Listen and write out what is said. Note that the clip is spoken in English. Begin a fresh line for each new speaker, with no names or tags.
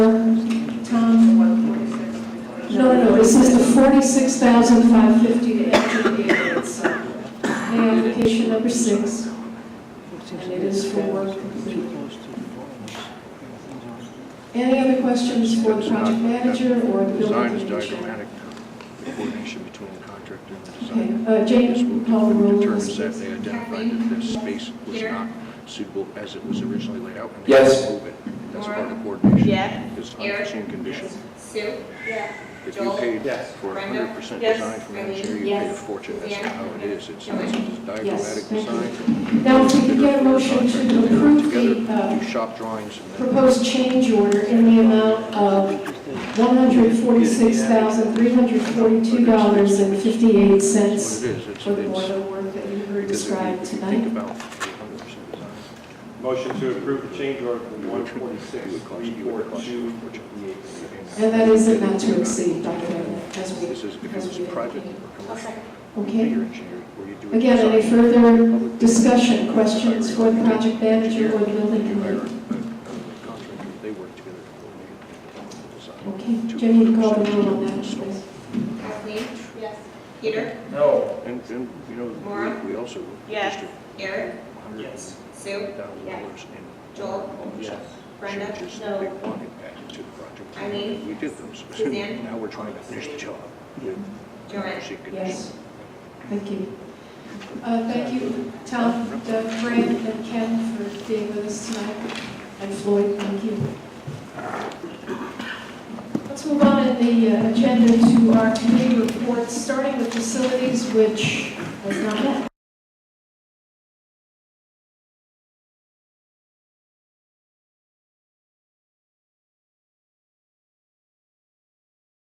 this is the 46,550 to MGP, it's uh, pay application number six, and it is for work complete. Any other questions for the project manager or the
Design is
building commissioner?
diagrammatic coordination between the contractor and the
Okay,
designer.
uh,
This
Jane, call the
will
roll.
determine
please.
that they identified that this space was not suitable as it was originally laid out. and they
Yes.
had to move it. That's part of coordination.
Yeah.
It's
Eric?
unforeseen condition.
Sue?
If you
Joel?
paid
Yes.
for a
Brenda?
hundred percent
Yes.
design from engineer, you
Yes.
paid a fortune. That's
Yeah.
not how it is. It's
Yeah.
it's a diagrammatic
thank you.
design.
Now, if we could get a motion to approve the uh,
Do shop drawings and then.
proposed change order in the amount of
What
$146,342.58
it is, it's,
for the
it's,
boiler work that you heard
because if
described
you- if you think
tonight.
about the hundred percent design,
Motion to approve the change order from
You would- you would cost-
146,
you would cost-
342,
And that is it not to exceed, Dr. Wagner, as we,
this is, if it was private or commercial,
okay?
you're engineering, or you do. a
Again, any
design,
further discussion, questions for the project manager or the building
you hire a- a- a
committee?
contractor, they work together to coordinate and develop the design.
Okay, Jenny, call the roll on that, please.
Kathleen? Yes. Peter?
No.
And, and, you know,
Maura?
we- we also.
Yes.
district
Eric?
hundred
Sue?
thousand dollars in.
Joel?
all the
Yes.
Brenda?
changes that they
No.
wanted added to the project.
Eileen?
We did those.
Suzanne?
Now we're trying to finish the job with
Joanne?
unforeseen conditions.
Yes, thank you. Uh, Thank you, Tom, Doug, Fran, and Ken for being with us tonight, and Floyd, thank you. Let's move on in the uh, agenda to our committee reports, starting with facilities, which was not met.